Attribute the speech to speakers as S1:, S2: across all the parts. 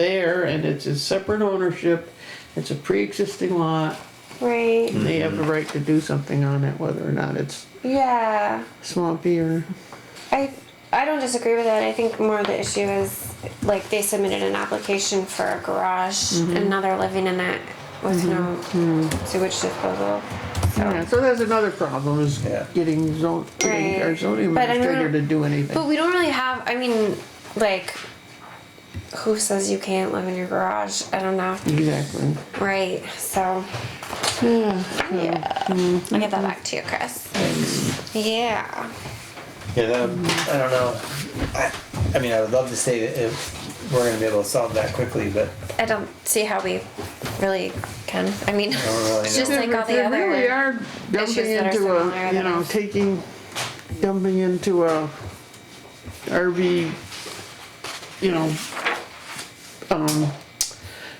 S1: there and it's a separate ownership, it's a pre-existing lot,
S2: Right.
S1: and they have the right to do something on it, whether or not it's
S2: Yeah.
S1: swampy or,
S2: I I don't disagree with that. I think more the issue is like they submitted an application for a garage and now they're living in it with no sewage disposal. So.
S1: yeah, so that's another problem is
S3: Yeah.
S1: getting zone, getting our
S2: Right.
S1: zoning
S2: But I mean,
S1: administrator to do anything.
S2: But we don't really have. I mean, like, who says you can't live in your garage? I don't know.
S1: Exactly.
S2: Right. So. Yeah. I'll get that back to you, Chris. Yeah.
S3: Yeah, that, I don't know. I, I mean, I would love to say that if we're gonna be able to solve that quickly, but
S2: I don't see how we really can. I mean,
S3: don't really
S2: it's just
S3: know.
S2: like all the
S1: They
S2: other.
S1: really are dumping
S2: issues that are
S1: into
S2: similar
S1: a, you
S2: that
S1: know,
S2: are-
S1: taking, dumping into a RV, you know, um,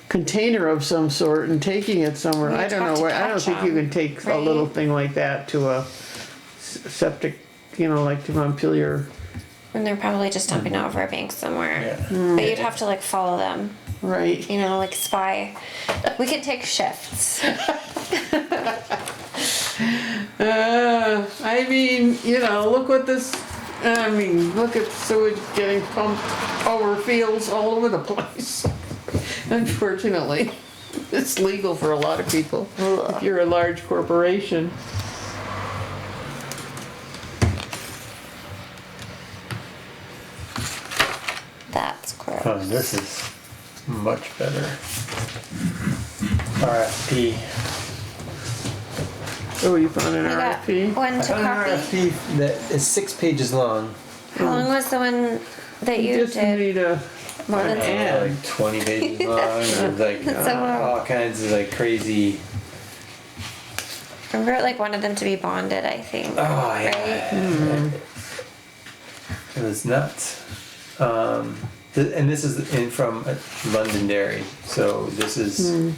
S1: container of some sort and taking it somewhere.
S2: We
S1: I don't
S2: talked
S1: know, where- I don't
S2: about
S1: think you
S2: that,
S1: can take a little
S2: right?
S1: thing like that to a s- septic, you know, like to Montpelier.
S2: And they're probably just dumping it over a bank somewhere.
S3: Yeah.
S2: But you'd have to like follow them,
S1: Right.
S2: you know, like spy. We could take shifts.
S1: Uh, I mean, you know, look what this, I mean, look at sewage getting pumped over fields all over the place. Unfortunately, it's legal for a lot of people, if you're a large corporation.
S2: That's gross.
S3: oh, this is much better. RFP.
S1: Oh, you found an
S2: We got
S1: RFP?
S2: one
S3: I
S2: to
S3: found an
S2: copy.
S3: RFP that is six pages long.
S2: How long was the one that you
S1: Just
S2: did?
S1: need a,
S2: More
S3: I
S2: than
S3: don't know,
S1: ad.
S3: Like twenty pages long, and like
S2: It's a lot.
S3: all kinds of like crazy.
S2: remember it like wanted them to be bonded. I think.
S3: Oh yeah. Hmm. It was nuts. Um, th- and this is in from uh, Londonderry, so this is
S1: Hmm.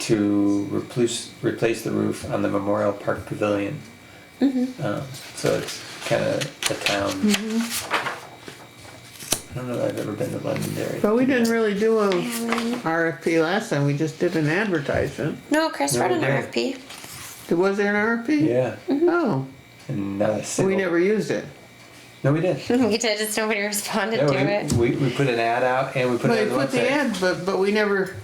S3: to replace replace the roof on the Memorial Park Pavilion.
S1: Mm-hmm.
S3: Um, so it's kind of a town. I don't know that I've ever been to Londonderry.
S1: but we didn't really do a
S2: haven't.
S1: RFP last time, we just did an advertisement.
S2: No, Chris
S3: No,
S2: wrote an
S3: no.
S2: RFP.
S1: Was there an RFP?
S3: Yeah,
S1: Oh,
S3: and not a single.
S1: we never used it.
S3: No, we did.
S2: you did, just nobody responded
S3: Yeah,
S2: to
S3: we,
S2: it.
S3: We, we put an ad out and we put
S1: But
S3: it
S1: we
S3: on the
S1: put
S3: website.
S1: the ad, but, but we never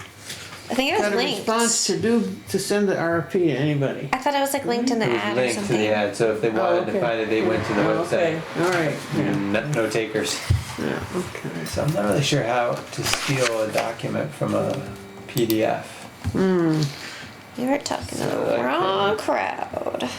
S2: I think it was
S1: got a
S2: linked.
S1: response to do, to send the RFP to anybody.
S2: I thought it was like linked in the
S3: It was
S2: ad or
S3: linked to
S2: something.
S3: the ad, so if they wanted to
S1: Oh, okay.
S3: find it, they went to Uh, the
S1: Oh,
S3: website.
S1: Okay, all right, yeah,
S3: No, no takers.
S1: yeah, okay.
S3: So I'm not really sure how to steal a document from a PDF.
S2: You were talking to
S3: So,
S2: the
S3: like,
S2: wrong crowd.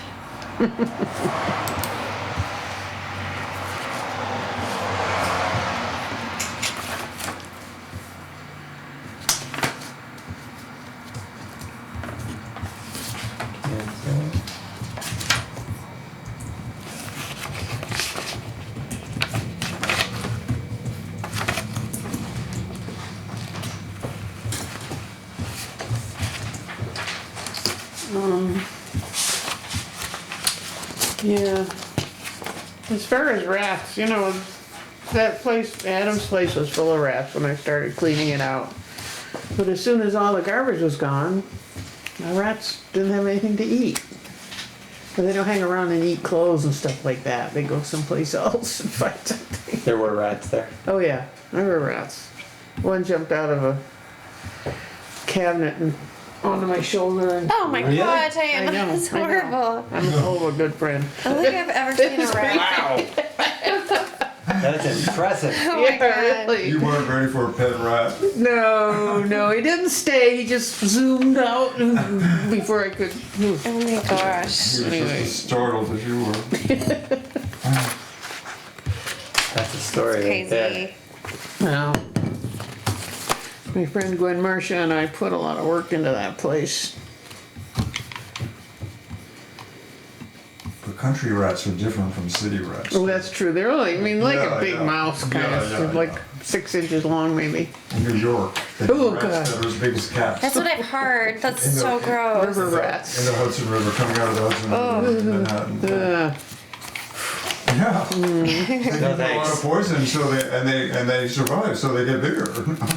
S3: And so-
S1: Um, Yeah. As far as rats, you know, that place, Adam's place was full of rats when I started cleaning it out. But as soon as all the garbage was gone, the rats didn't have anything to eat. But they don't hang around and eat clothes and stuff like that. They go someplace else and find something.
S3: There were rats there.
S1: Oh yeah, there were rats. One jumped out of a cabinet and onto my shoulder and
S2: Oh my
S3: Really?
S2: god, I am.
S1: I know,
S2: That's
S1: I know.
S2: horrible.
S1: I'm a hell of a good friend.
S2: I don't think I've ever seen a rat.
S3: Wow! That's impressive.
S2: Oh my god.
S4: You
S1: really.
S4: weren't ready for a pet rat.
S1: No, no, he didn't stay. He just zoomed out and- before I could.
S2: Oh my gosh.
S4: He was just as startled as you were.
S3: That's a story right there.
S2: Crazy.
S1: Well, my friend Gwen Marcia and I put a lot of work into that place.
S4: But country rats are different from city rats.
S1: Oh, that's true. They're only, I mean, like
S4: Yeah,
S1: a big
S4: yeah.
S1: mouse kind
S4: Yeah,
S1: of,
S4: yeah,
S1: like
S4: yeah.
S1: six inches long, maybe.
S4: In New York, they
S1: Oh,
S4: have
S1: God.
S4: rats that are as big as cats.
S2: That's what I've heard. That's
S4: In the-
S2: so gross.
S1: River
S4: In
S1: rats. Oh.
S4: the Hudson River, coming out of the Hudson River in Manhattan.
S1: Uh,
S4: Yeah. They
S3: No
S4: get a lot
S1: Hmm.
S3: thanks.
S4: of poison, so they, and they, and they survive, so they get bigger.